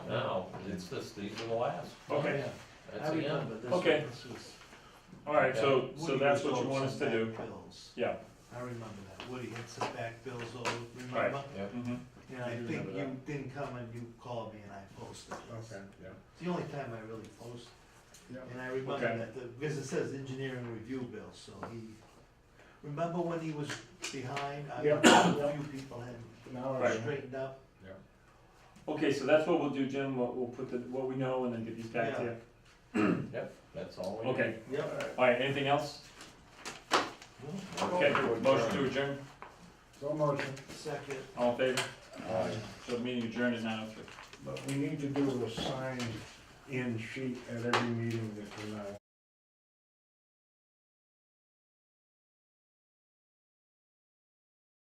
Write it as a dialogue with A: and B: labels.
A: it's just, these are the last,
B: Okay,
A: that's the end.
B: Okay. all right, so, so that's what you want us to do. Yeah.
C: I remember that, Woody had some back bills, oh,
B: Right.
C: remember?
A: Yep.
B: Mhm.
C: And I
B: I do
C: think
B: remember
C: you didn't come and you called me and I posted it. It's the only time I really posted.
D: Yep.
C: And I remember
B: Okay.
C: that, the- because it says engineering review bill, so he, remember when he was behind? I
D: Yep,
C: remember A
D: yep.
C: few people had
D: Now,
B: Right.
C: straightened up.
B: Mm-hmm. Okay, so that's what we'll do, Jim, we'll, we'll put the, what we know and then get these back to you.
A: Yep, that's all we need.
B: Okay,
C: Yep.
B: all right, anything else? Okay, motion to adjourn,
D: so motion,
C: Second,
B: all in favor?
D: uh,
B: So the meeting adjourned at nine oh three.
D: but we need to do a signed in sheet at every meeting that we're not.